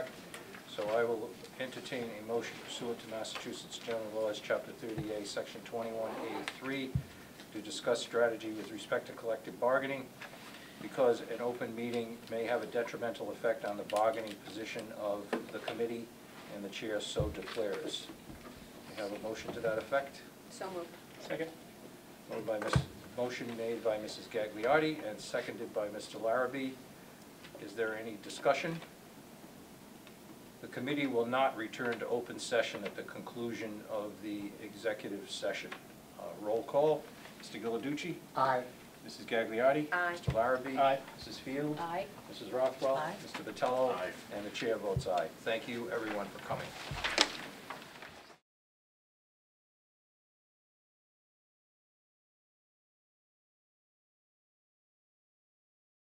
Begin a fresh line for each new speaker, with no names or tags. so I will entertain a motion pursuant to Massachusetts General Laws, Chapter 30A, Section 21A3, to discuss strategy with respect to collective bargaining, because an open meeting may have a detrimental effect on the bargaining position of the committee, and the chair so declares. We have a motion to that effect?
So moved.
Second. Moved by Ms., motion made by Mrs. Gagliardi and seconded by Mr. Larrabee. Is there any discussion? The committee will not return to open session at the conclusion of the executive session. Uh, Roll call, Mr. Giliducci?
Aye.
Mrs. Gagliardi?
Aye.
Mr. Larrabee?
Aye.
Mrs. Field?
Aye.
Mrs. Rothwell?
Aye.
Mr. Vitello?
Aye.
And the chair votes aye. Thank you, everyone, for coming.